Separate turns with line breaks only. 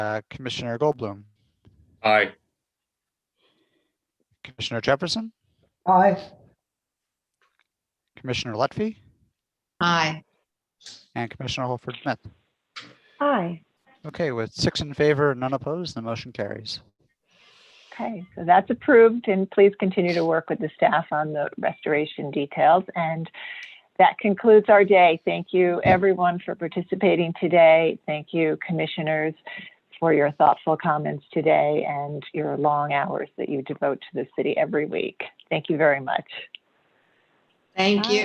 Uh, Commissioner Goldblum,
Aye.
Commissioner Jefferson,
Aye.
Commissioner Lutfi,
Aye.
and Commissioner Holford Smith.
Aye.
Okay, with six in favor, none opposed, the motion carries.
Okay, so that's approved and please continue to work with the staff on the restoration details. And that concludes our day. Thank you, everyone, for participating today. Thank you, commissioners, for your thoughtful comments today and your long hours that you devote to the city every week. Thank you very much.
Thank
Aye.
you.